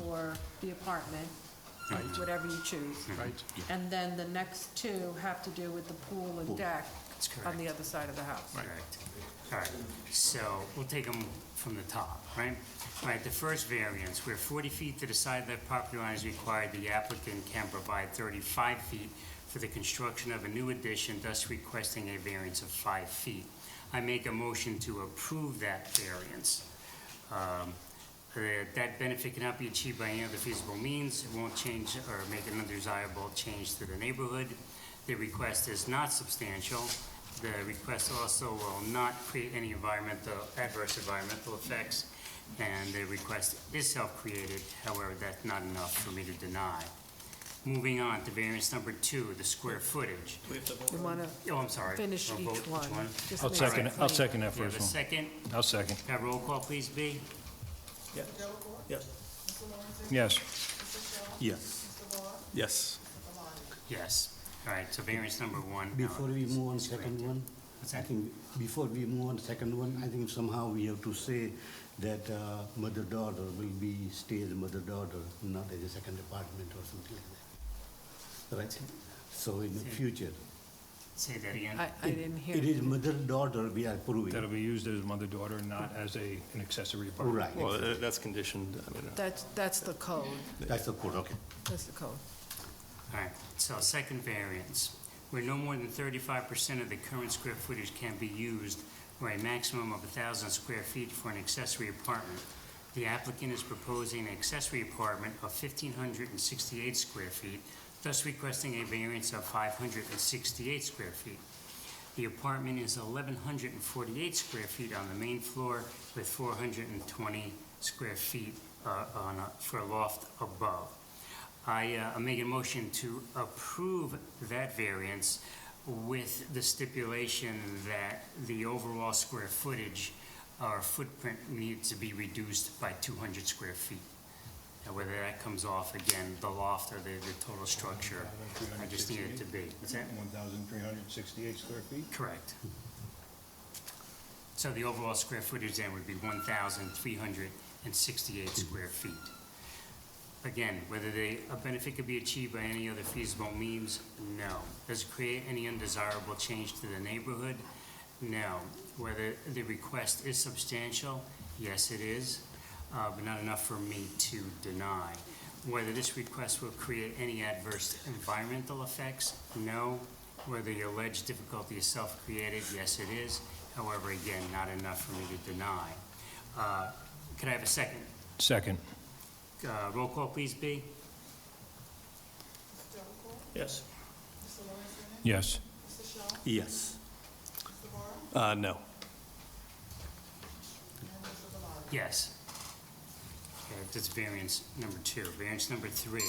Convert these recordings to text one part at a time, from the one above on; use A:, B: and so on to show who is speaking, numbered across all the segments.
A: or the apartment,
B: Right.
A: whatever you choose.
B: Right.
A: And then the next two have to do with the pool and deck
C: That's
A: on
C: correct.
A: the other side of the house.
C: Correct. All right, so we'll take them from the top, right? All right, the first variance, where 40 feet to the side of the property line is required, the applicant can provide 35 feet for the construction of a new addition, thus requesting a variance of five feet. I make a motion to approve that variance. Um, uh, That benefit cannot be achieved by any other feasible means, it won't change or make an undesirable change to the neighborhood. The request is not substantial. The request also will not create any environmental, adverse environmental effects, and the request is self-created, however, that's not enough for me to deny. Moving on to variance number two, the square footage.
A: You want to
C: Oh, I'm sorry.
A: finish
C: I'll
A: each
C: vote
A: one. Just
D: I'll
A: make
D: second,
A: it
D: I'll
A: clean.
D: second that
C: We have
D: first
C: a
D: one.
C: second.
D: I'll second.
C: Can I roll call, please, B?
E: Yes.
D: Yes.
E: Yes. Yes.
C: Yes. All right, so variance number one. uh,
F: Before we move on second
C: granted.
F: one,
C: What's
F: I
C: that?
F: think, before we move on second one, I think somehow we have to say that uh, mother-daughter will be, stay as mother-daughter, not as a second apartment or something like that. Right? So in the future,
C: Say that again.
A: I, I didn't hear.
F: it
A: you.
F: is mother-daughter we are
D: That'll
F: approving.
D: be used as mother-daughter, not as a, an accessory apartment.
F: Right,
E: Well, tha- that's conditioned, I mean, uh,
A: That's, that's the code.
F: that's the code, okay.
A: That's the code.
C: All right, so second variance, where no more than thirty-five percent of the current square footage can be used or a maximum of thousand square feet for an accessory apartment. The applicant is proposing an accessory apartment of fifteen hundred and sixty-eight square feet, thus requesting a variance of five hundred and sixty-eight square feet. The apartment is eleven hundred and forty-eight square feet on the main floor with four hundred and twenty square feet, uh, on a, for a loft above. I uh, make a motion to approve that variance with the stipulation that the overall square footage or footprint needs to be reduced by 200 square feet. Now, whether that comes off, again, the loft or the, the total structure, I just need it to be. Is that
G: 1,368 square feet?
C: correct? So the overall square footage then would be 1,368 square feet. Again, whether they, a benefit could be achieved by any other feasible means, no. Does it create any undesirable change to the neighborhood? No. Whether the request is substantial? Yes, it is, uh, but not enough for me to deny. Whether this request will create any adverse environmental effects? No. Whether the alleged difficulty is self-created? Yes, it is. However, again, not enough for me to deny. Uh, Could I have a second?
D: Second.
C: Uh, Roll call, please, B.
E: Yes.
D: Yes.
E: Yes. Uh, no.
C: Yes. Okay, that's variance number two. Variance number three.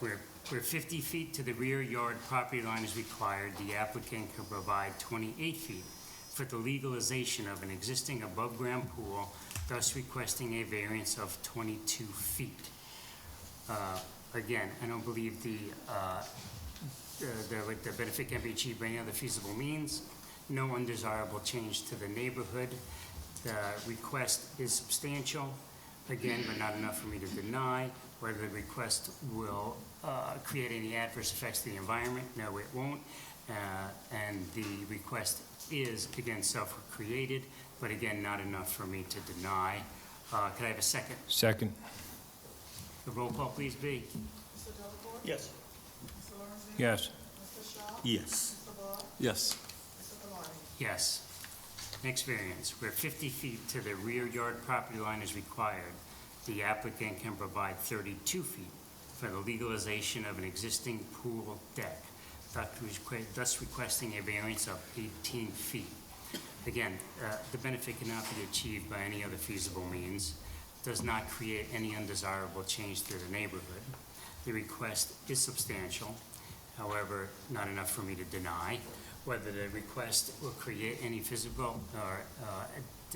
C: Where, where 50 feet to the rear yard property line is required, the applicant can provide 28 feet for the legalization of an existing above-ground pool, thus requesting a variance of 22 feet. Uh, Again, I don't believe the, uh, the- the, like, the benefit can be achieved by any other feasible means. No undesirable change to the neighborhood. The request is substantial, again, but not enough for me to deny. Whether the request will uh, create any adverse effects to the environment, no, it won't. Uh, And the request is, again, self-created, but again, not enough for me to deny. Uh, Could I have a second?
D: Second.
C: The roll call, please, B.
E: Yes.
D: Yes.
E: Yes. Yes.
C: Yes. Next variance, where 50 feet to the rear yard property line is required, the applicant can provide 32 feet for the legalization of an existing pool deck, thus requ- thus requesting a variance of 18 feet. Again, uh, the benefit cannot be achieved by any other feasible means, does not create any undesirable change to the neighborhood. The request is substantial, however, not enough for me to deny. Whether the request will create any physical or, uh,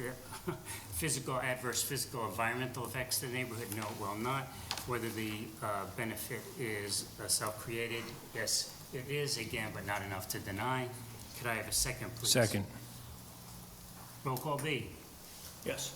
C: ad- physical, adverse physical, environmental effects to the neighborhood, no, it will not. Whether the uh, benefit is uh, self-created, yes, it is, again, but not enough to deny. Could I have a second, please?
D: Second.
C: Roll call B.
E: Yes.